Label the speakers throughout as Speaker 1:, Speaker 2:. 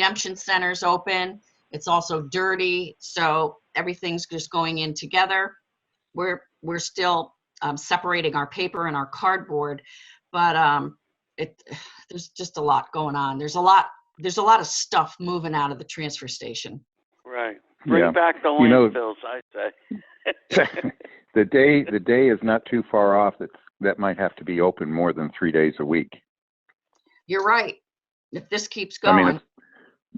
Speaker 1: redemption center's open. It's also dirty, so everything's just going in together. We're, we're still um, separating our paper and our cardboard, but um, it, there's just a lot going on. There's a lot, there's a lot of stuff moving out of the transfer station.
Speaker 2: Right.
Speaker 3: Yeah.
Speaker 2: Bring back the
Speaker 3: You know-
Speaker 2: landfills, I say.
Speaker 3: the day the day is not too far off that that might have to be open more than three days a week.
Speaker 1: You're right. If this keeps
Speaker 3: I mean,
Speaker 1: going.
Speaker 3: it's-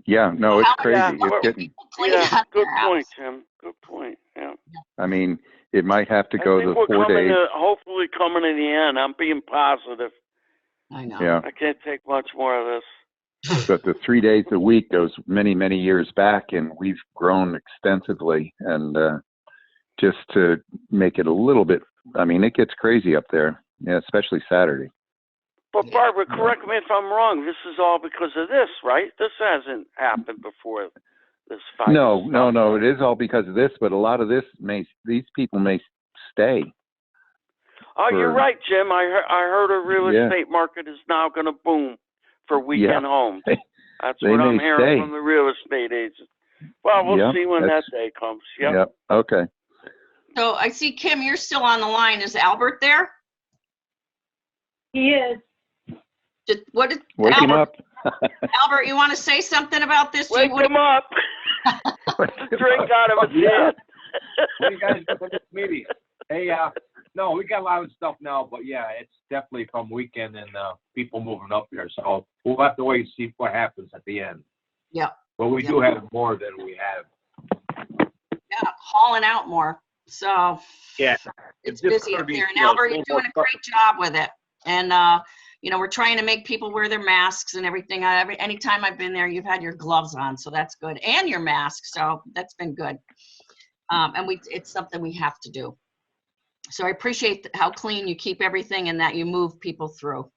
Speaker 3: yeah, no, it's
Speaker 1: Yeah.
Speaker 3: crazy.
Speaker 2: Yeah.
Speaker 3: It's getting.
Speaker 1: clean
Speaker 2: Yeah,
Speaker 1: up
Speaker 2: good
Speaker 1: their
Speaker 2: point,
Speaker 1: house.
Speaker 2: Tim. Good point, yeah.
Speaker 3: I mean, it might have to
Speaker 2: I
Speaker 3: go
Speaker 2: think
Speaker 3: the
Speaker 2: we're
Speaker 3: four
Speaker 2: coming
Speaker 3: days.
Speaker 2: to- Hopefully coming to the end. I'm being positive.
Speaker 1: I know.
Speaker 3: Yeah,
Speaker 2: I can't take much more of this.
Speaker 3: but the three days a week goes many many years back, and we've grown extensively. And uh, just to make it a little bit, I mean, it gets crazy up there, yeah, especially Saturday.
Speaker 2: But
Speaker 1: Yeah.
Speaker 2: Barbara, correct me if I'm wrong. This is all because of this, right? This hasn't happened before, this fight.
Speaker 3: No, no, no. It is all because of this, but a lot of this may these people may stay.
Speaker 2: Oh, you're
Speaker 3: for-
Speaker 2: right, Jim. I heard, I heard a real
Speaker 3: Yeah.
Speaker 2: estate market is now gonna boom for weekend homes.
Speaker 3: They-
Speaker 2: That's
Speaker 3: they
Speaker 2: what I'm
Speaker 3: may
Speaker 2: hearing
Speaker 3: stay.
Speaker 2: from the real estate agents. Well, we'll
Speaker 3: Yeah,
Speaker 2: see when that
Speaker 3: that's-
Speaker 2: day comes. Yep.
Speaker 3: Okay.
Speaker 1: So I see, Kim, you're still on the line. Is Albert there?
Speaker 4: He is.
Speaker 1: Did- What did,
Speaker 3: Wake him
Speaker 1: Albert,
Speaker 3: up.
Speaker 1: Albert, you want to say something about this? You
Speaker 2: Wake
Speaker 1: would-
Speaker 2: him up.
Speaker 3: Wake him
Speaker 2: Drink
Speaker 3: up.
Speaker 2: out of his
Speaker 5: Yeah.
Speaker 2: hand.
Speaker 5: What do you guys think of this meeting? Hey, uh, no, we got a lot of stuff now, but yeah, it's definitely from weekend and, uh, people moving up here, so we'll have to wait and see what happens at the end.
Speaker 1: Yep.
Speaker 5: But we do have more than we have.
Speaker 1: Yeah, hauling out more. So
Speaker 5: Yeah.
Speaker 1: it's
Speaker 5: If this
Speaker 1: busy up
Speaker 5: Kirby
Speaker 1: there. And
Speaker 5: feels
Speaker 1: Albert,
Speaker 5: a
Speaker 1: you're
Speaker 5: little more
Speaker 1: doing a great job with it. And, uh, you know, we're trying to make people wear their masks and everything. I, every, anytime I've been there, you've had your gloves on, so that's good. And your mask, so that's been good. Um, and we, it's something we have to do. So I appreciate th- how clean you keep everything and that you move people through.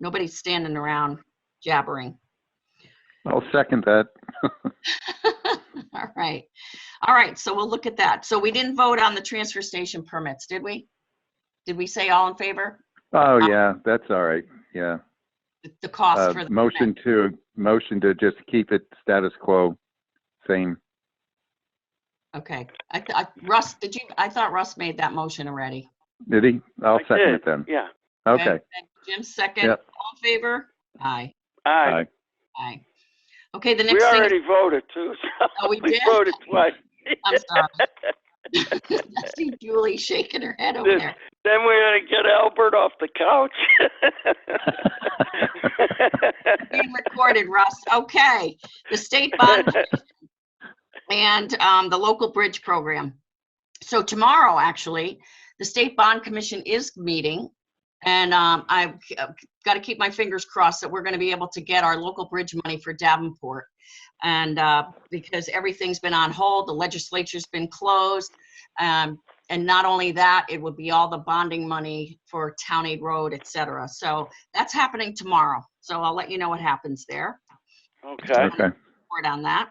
Speaker 1: Nobody's standing around jabbering.
Speaker 3: I'll second that.
Speaker 1: All right. All right, so we'll look at that. So we didn't vote on the transfer station permits, did we? Did we say all in favor?
Speaker 3: Oh, yeah, that's all right. Yeah.
Speaker 1: The- The cost
Speaker 3: Uh,
Speaker 1: for the.
Speaker 3: motion to, motion to just keep it status quo, same.
Speaker 1: Okay. I, th- I- Russ, did you, I thought Russ made that motion already.
Speaker 3: Did he? I'll
Speaker 2: I
Speaker 3: second
Speaker 2: did,
Speaker 3: it then.
Speaker 2: Yeah.
Speaker 3: Okay.
Speaker 1: And Jim, second. All
Speaker 3: Yep.
Speaker 1: in favor? Aye,
Speaker 2: All right.
Speaker 3: Aye.
Speaker 1: aye. Okay, the
Speaker 2: We
Speaker 1: next thing,
Speaker 2: already voted too. so
Speaker 1: Oh, we did?
Speaker 2: voted twice.
Speaker 1: I'm sorry. I see Julie shaking her head over
Speaker 2: This-
Speaker 1: there.
Speaker 2: Then we're gonna get Albert off the couch.
Speaker 1: Being recorded, Russ. Okay. The state bond and um, the local bridge program. So tomorrow, actually, the State Bond Commission is meeting, and um, I've got to keep my fingers crossed that we're going to be able to get our local bridge money for Davenport. And uh, because everything's been on hold, the legislature's been closed. um, And not only that, it would be all the bonding money for Town Aid Road, et cetera. So that's happening tomorrow. So I'll let you know what happens there
Speaker 2: Okay.
Speaker 3: Okay.
Speaker 1: report on that.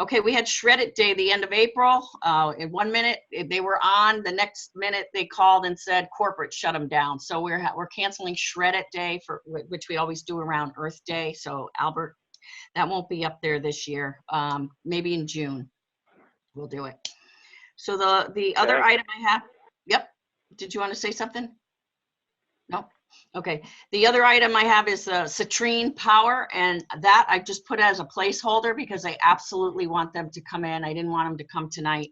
Speaker 1: Okay, we had Shred It Day the end of April. Uh, in one minute, eh, they were on. The next minute, they called and said corporate shut them down. So we're, ha- we're canceling Shred It Day for, wh- which we always do around Earth Day. So Albert, that won't be up there this year. Um, maybe in June, we'll do it. So the, the other
Speaker 2: Okay.
Speaker 1: item I have, yep, did you want to say something? No. Okay, the other item I have is uh, Citrine Power, and that I just put as a placeholder because I absolutely want them to come in. I didn't want them to come tonight.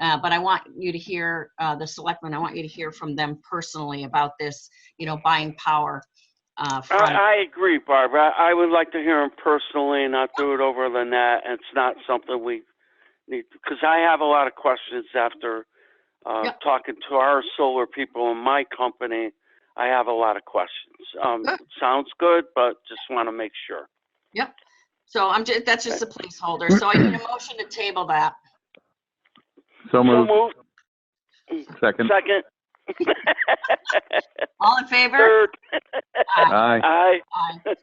Speaker 1: Uh, But I want you to hear, uh, the selectmen, I want you to hear from them personally about this, you know, buying power. uh,
Speaker 2: I,
Speaker 1: from-
Speaker 2: I agree, Barbara. I, I would like to hear him personally, and not do it over the net. It's not something we need because I have a lot of questions after uh,
Speaker 1: Yep.
Speaker 2: talking to our solar people in my company. I have a lot of questions. Um,
Speaker 1: Good.
Speaker 2: sounds good, but just want to make sure.
Speaker 1: So I'm just, that's just a placeholder. So I need a motion to table that.
Speaker 3: So
Speaker 2: So
Speaker 3: moved,
Speaker 2: moved.
Speaker 3: second.
Speaker 2: Second.
Speaker 1: All in favor?
Speaker 2: Third.
Speaker 3: Aye.
Speaker 2: Aye.
Speaker 1: Aye.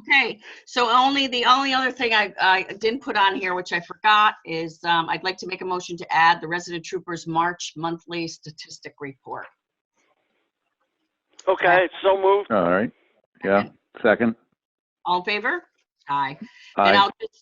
Speaker 1: Okay, so only, the only other thing I, I didn't put on here, which I forgot, is um, I'd like to make a motion to add the resident troopers' March monthly statistic report.
Speaker 2: Okay. So moved.
Speaker 3: All right. Yeah, second.
Speaker 1: All in favor? Aye.
Speaker 3: Aye.
Speaker 1: And I'll just